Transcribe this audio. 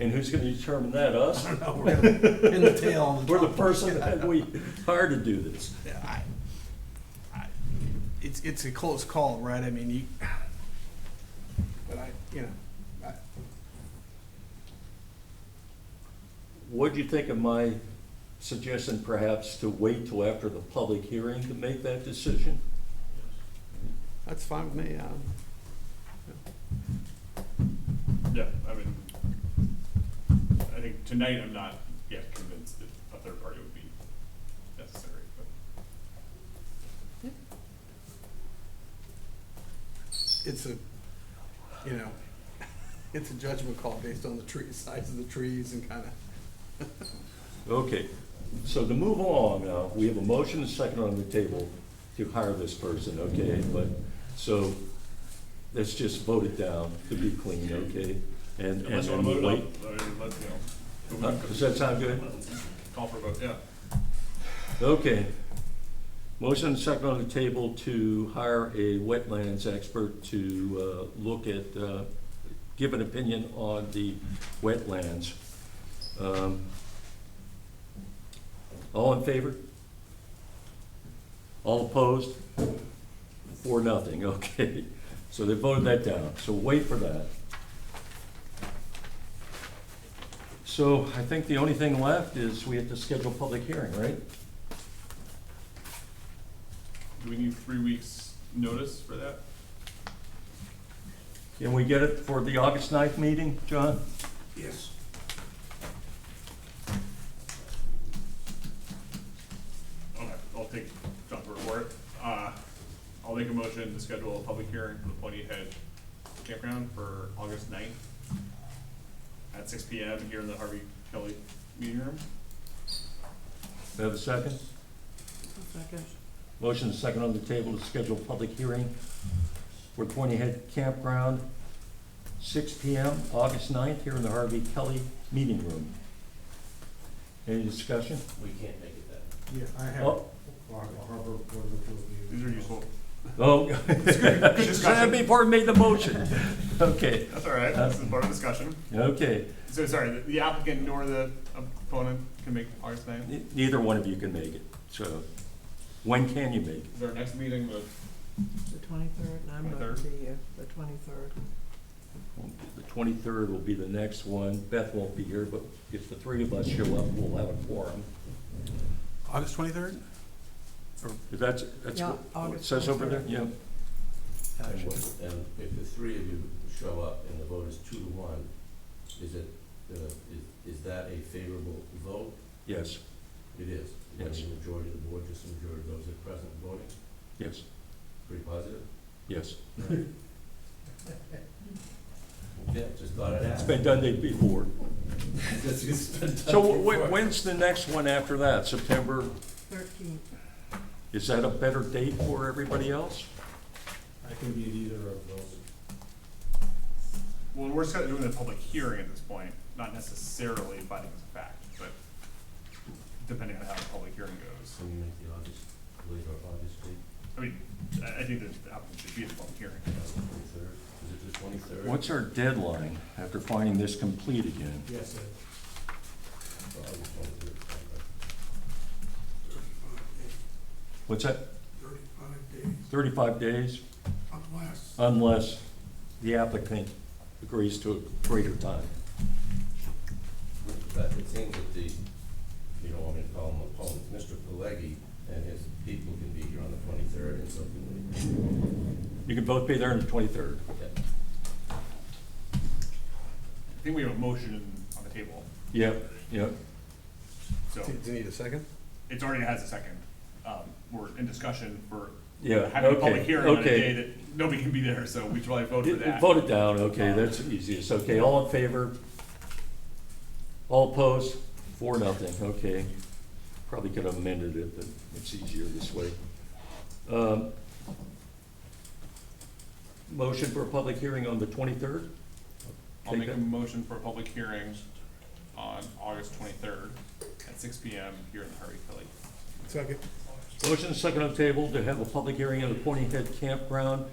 And who's gonna determine that, us? I don't know, we're gonna- in the tail on the We're the top. person that we hired to do this. I- I- It's, it's a close call, right? I mean, you, but I, you know, I, What'd you think of my suggestion perhaps to wait till after the public hearing to make that decision? that's fine with me. um, Yeah, I mean, I think tonight I'm not yet convinced that a third party would be necessary, but. It's a, you know, it's a judgment call based on the tree, size of the trees and kind of. Okay, so to move along now, we have a motion and second on the table to hire this person, okay? But, so, let's just vote it down to be clean, okay? And, and Unless you then wanna vote we'll it wait. up, I mean, let, you Huh? know. Does that sound good? Call for a vote, yeah. Okay. Motion and second on the table to hire a wetlands expert to uh, look at, uh, give an opinion on the wetlands. Um, All in favor? All opposed? Four, nothing, okay. So they voted that down, so wait for that. So I think the only thing left is we have to schedule a public hearing, right? Do we need three weeks' notice for that? Can we get it for the August 9th meeting, John? Yes. Okay, I'll take John's word for it. Uh, I'll make a motion to schedule a public hearing for the Pointy Head Campground for August ninth at six P M here in the Harvey Kelly meeting room. Do I have a second? Second. Motion is second on the table to schedule a public hearing for Pointy Head Campground, 6 PM, August 9th, here in the Harvey Kelly Meeting Room. Any discussion? We can't make it that. Yeah, I have. Oh, These are useful. oh. Sam before made the motion. Okay, That's all right, this is part of discussion. okay. So sorry, the- the applicant nor the opponent can make August ninth. Ne- Neither one of you can make it, so when can you make it? Is our next meeting the The twenty-third, and I'm not 23rd? the, uh, the twenty-third. The twenty-third will be the next one. Beth won't be here, but if the three of us show up, we'll have a forum. August twenty-third? If that's, that's Yeah, what it August says over there, yeah. Uh, And what- And if the three of you show up and the vote is two to one, is it, uh, is, is that a favorable vote? Yes, It is. You have Yes. a majority of the board, just a majority of those that are present voting, yes, pretty positive? yes. Yeah, just thought I'd It's ask. been done day before. It's- it's been done So wh- before. wh- when's the next one after that? September? Thirteenth, Is that a better date for everybody else? I can be at either of those. Well, we're still doing the public hearing at this point, not necessarily finding as a fact, but depending on how the public hearing goes. Can you make the August, later August date, I mean, I, I think that the applicant should be at the public hearing. uh, twenty-third? Is it the twenty-third? What's our deadline after finding this complete again? Yes, sir. August twenty-third. What's that, Thirty-five days, thirty-five days? unless. Unless the applicant agrees to a greater time. But it seems that the, you don't want me to call him opponents, Mr. Pelleggi and his people can be here on the twenty-third and so can we. You can both be there on the twenty-third. Yeah. I think we have a motion on the table, Yep, yep. so Do you need a second? it's already has a second. Um, we're in discussion for Yeah, having a okay, public hearing on a okay. day that nobody can be there, so we should probably vote for that. Vote it down, okay, that's the easiest, okay, all in favor? All opposed? Four, nothing, okay. Probably could have amended it, but it's easier this way. Um, Motion for a public hearing on the twenty-third? I'll Take make a that. motion for a public hearing on August twenty-third at six P M here in the Harvey Kelly. Second. Motion second on the table to have a public hearing on the Pointy Head Campground